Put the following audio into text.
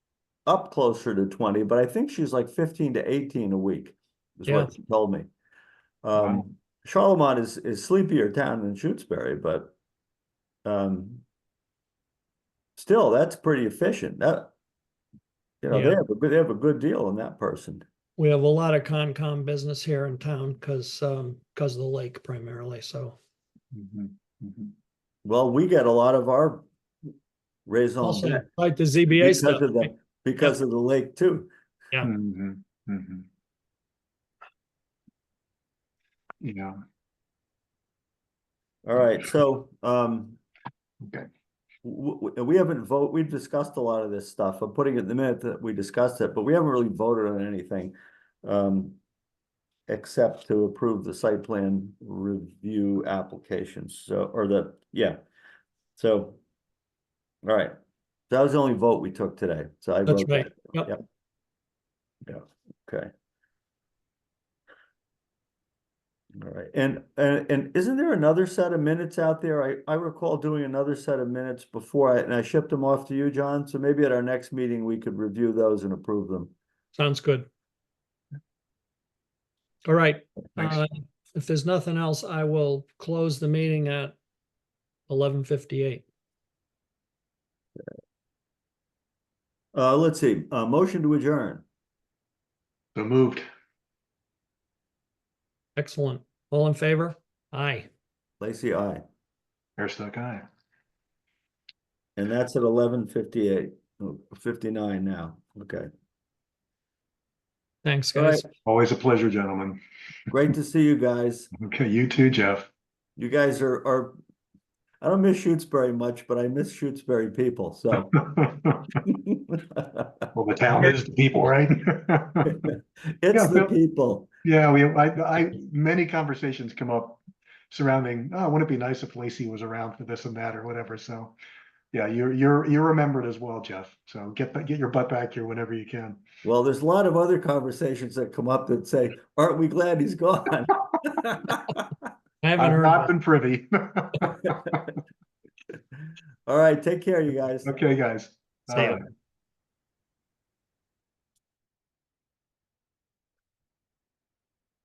up closer to twenty, but I think she's like fifteen to eighteen a week, is Yeah. what she told me. Um, Charlemont is, is sleepier town than Shutesbury, but um, still, that's pretty efficient, that you know, they Yeah. have a good, they have a good deal on that person. We have a lot of Concom business here in town because, um, because of the lake primarily, so. Mm-hmm. Well, we get a lot of our raison Also, d'etre like the ZBA Oh, because stuff, of the, because of the lake too. Yeah. Mhm, mhm. Yeah, All right, so, um, okay, w- w- we haven't vote, we've discussed a lot of this stuff. I'm putting it in the minute that we discussed it, but we haven't really voted on anything. Um, except to approve the site plan review applications, so, or the, yeah. So, all right, that was the only vote we took today, so I. that's vote right. Yep. Yep. Yeah, okay. All right, and, and, and isn't there another set of minutes out there? I, I recall doing another set of minutes before I, and I shipped them off to you, John, so maybe at our next meeting, we could review those and approve them. Sounds good. All right, thanks. uh, if there's nothing else, I will close the meeting at eleven fifty-eight. Uh, let's see, uh, motion to adjourn. So moved. Excellent. All in favor? Aye. Lacy, aye. Hairstuck guy. And that's at eleven fifty-eight, oh, fifty-nine now, okay. Thanks, All right. guys. Always a pleasure, gentlemen. Great to see you guys. Okay, you too, Jeff. You guys are, are, I don't miss Shutesbury much, but I miss Shutesbury people, so. Well, the town is the people, right? It's Yeah, the Bill. people. Yeah, we, I, I, many conversations come up surrounding, oh, wouldn't it be nice if Lacey was around for this and that or whatever, so. Yeah, you're, you're, you're remembered as well, Jeff, so get, ba- get your butt back here whenever you can. Well, there's a lot of other conversations that come up that say, aren't we glad he's gone? I haven't I've heard. not of it. been privy. All right, take care, you guys. Okay, guys. See ya. All right.